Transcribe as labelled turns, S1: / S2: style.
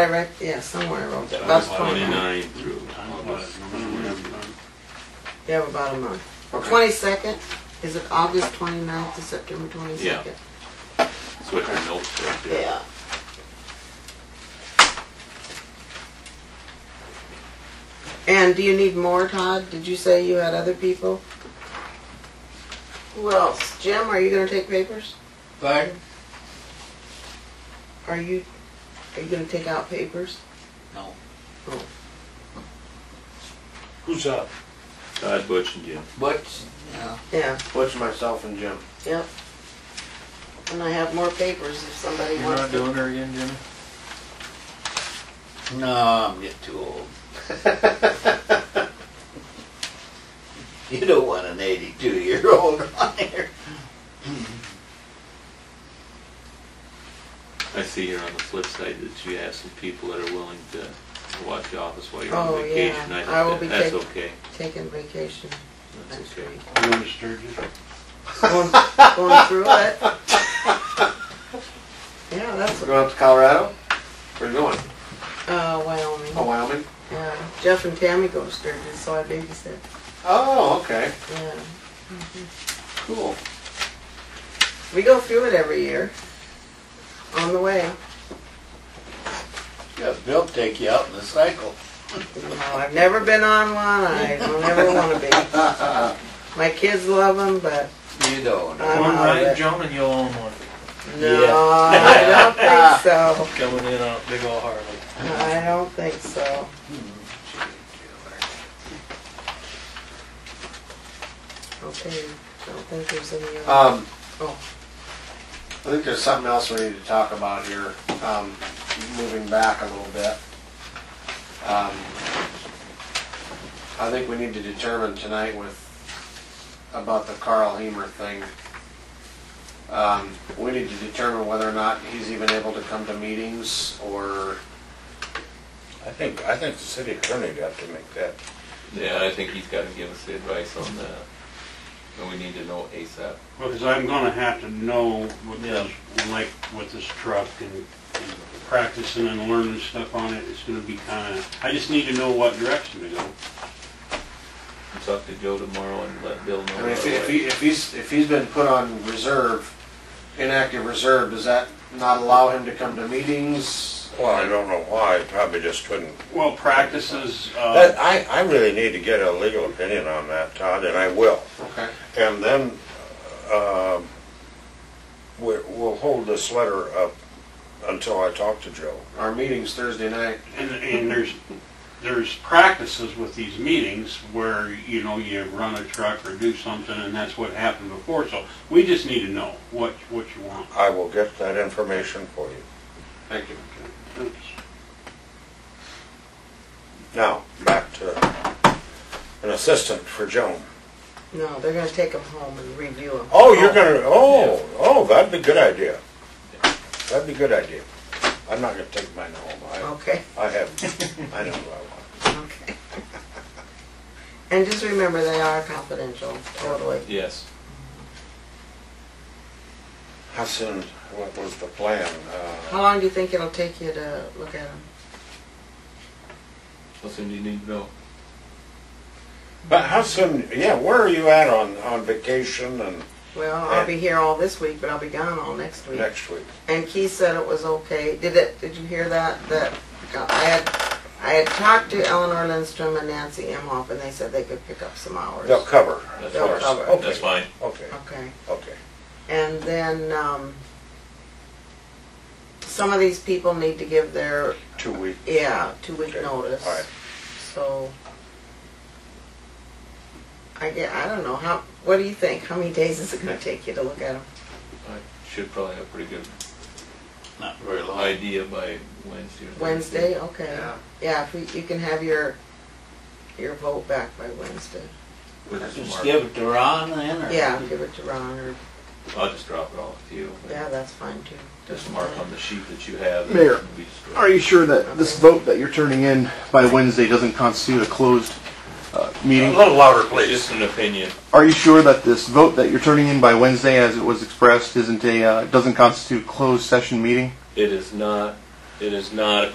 S1: I write, yeah, somewhere I wrote that. About
S2: That's
S1: twenty-nine.
S2: twenty-nine through.
S1: You have about a month.
S2: Okay.
S1: Twenty-second, is it August twenty-ninth to September twenty-second?
S2: That's what your notes right there.
S1: Yeah. And do you need more, Todd? Did you say you had other people? Who else? Jim, are you gonna take papers?
S3: Pardon?
S1: Are you, are you gonna take out papers?
S3: No.
S1: Oh.
S3: Who's up?
S2: Todd, Butch, and Jim.
S3: Butch, yeah.
S1: Yeah,
S4: Butch, myself, and Jim.
S1: yep. And I have more papers if somebody
S5: You're
S1: wants
S5: not
S1: to.
S5: doing her again, Jimmy?
S3: No, I'm getting too old. You don't want an eighty-two year old on here.
S2: I see here on the flip side that you have some people that are willing to watch the office while you're
S1: Oh, yeah.
S2: on vacation. think
S1: I will
S2: that-
S1: be
S2: That's
S1: taking-
S2: okay.
S1: Taking vacation
S2: That's
S1: next
S2: okay.
S1: week.
S5: You're Sturgis.
S1: Going, going through it. Yeah, that's,
S4: We're going up to Colorado? Where are you going?
S1: uh,
S4: Oh,
S1: Wyoming.
S4: Wyoming?
S1: Yeah, Jeff and Tammy go to Sturgis, so I babysit.
S4: Oh, okay.
S1: Yeah.
S4: Cool.
S1: We go through it every year. On the way.
S3: Yeah, Bill take you out in the cycle.
S1: No, I've never been on one. I don't ever want to be. My kids love them, but
S3: You don't.
S1: I'm
S5: One
S1: out of
S5: right,
S1: it.
S5: Joan, and you'll own one.
S1: No, I don't think so.
S5: Coming in on a big old Harley.
S1: I don't think so. Okay, I don't think there's any other.
S4: Um,
S1: Oh.
S4: I think there's something else we need to talk about here, um, moving back a little bit. Um, I think we need to determine tonight with, about the Carl Hemer thing. Um, we need to determine whether or not he's even able to come to meetings or,
S6: I think, I think the city attorney got to make that.
S2: Yeah, I think he's gotta give us the advice on that. And we need to know ASAP.
S7: Well, because I'm gonna have to know with
S5: Yeah.
S7: this, like with this truck and and practicing and learning stuff on it, it's gonna be kinda, I just need to know what direction to go.
S2: I'll Talk to Joe tomorrow and let Bill know.
S4: I mean, if,
S2: right
S4: if
S2: away.
S4: he, if he's, if he's been put on reserve, inactive reserve, does that not allow him to come to meetings?
S6: Well, I don't know why, probably just couldn't.
S7: Well, practices,
S6: But
S7: uh,
S6: I, I really need to get a legal opinion on that, Todd, and I will.
S4: Okay.
S6: And then, um, we, we'll hold this letter up until I talk to Joe.
S4: Our meeting's Thursday night.
S7: and, and there's, there's practices with these meetings where, you know, you run a truck or do something, and that's what happened before, so we just need to know what, what you want.
S6: I will get that information for you.
S4: Thank you.
S6: Now, back to an assistant for Joan.
S1: No, they're gonna take them home and review them.
S6: Oh, you're gonna, oh, oh, that'd be a good idea. That'd be a good idea. I'm not gonna take mine home.
S1: Okay,
S6: I, I have, I know uh, what I want.
S1: okay. And just remember, they are confidential, totally.
S2: Yes.
S6: How soon, what was the plan? Uh,
S1: How long do you think it'll take you to look at them?
S2: What's in, you need to know?
S6: But how soon, yeah, where are you at on, on vacation and
S1: Well, I'll be here all this week, but I'll be gone all next week.
S6: next week?
S1: And Keith said it was okay. Did it? Did you hear that? That I had, I had talked to Eleanor Lindstrom and Nancy Imhoff, and they said they could pick up some hours.
S6: They'll cover,
S2: That's
S1: They'll
S2: fine.
S1: cover.
S2: That's fine.
S6: okay,
S1: Okay.
S6: okay.
S1: And then um, some of these people need to give their
S6: Two weeks.
S1: yeah two week
S6: Okay.
S1: notice.
S6: All right.
S1: So I get. I don't know how. What do you think? How many days is it going to take you to look at them?
S2: I should probably have a pretty good
S3: Not very long.
S2: idea by Wednesday or Thursday.
S1: Wednesday. Okay.
S4: Yeah.
S1: Yeah, if we, you can have your, your vote back by Wednesday.
S2: With some
S3: Just
S2: mark.
S3: give it to Ron then, or?
S1: Yeah, give it to Ron or,
S2: I'll just drop it off to you.
S1: yeah, that's fine too.
S2: Just mark on the sheet that you have.
S8: Mayor,
S2: and we just-
S8: Are you sure that this vote that you're turning in by Wednesday doesn't constitute a closed uh, meeting?
S6: little louder,
S2: It's just an opinion.
S8: Are you sure that this vote that you're turning in by Wednesday, as it was expressed, isn't a, uh, doesn't constitute a closed session meeting?
S2: It is not, it is not a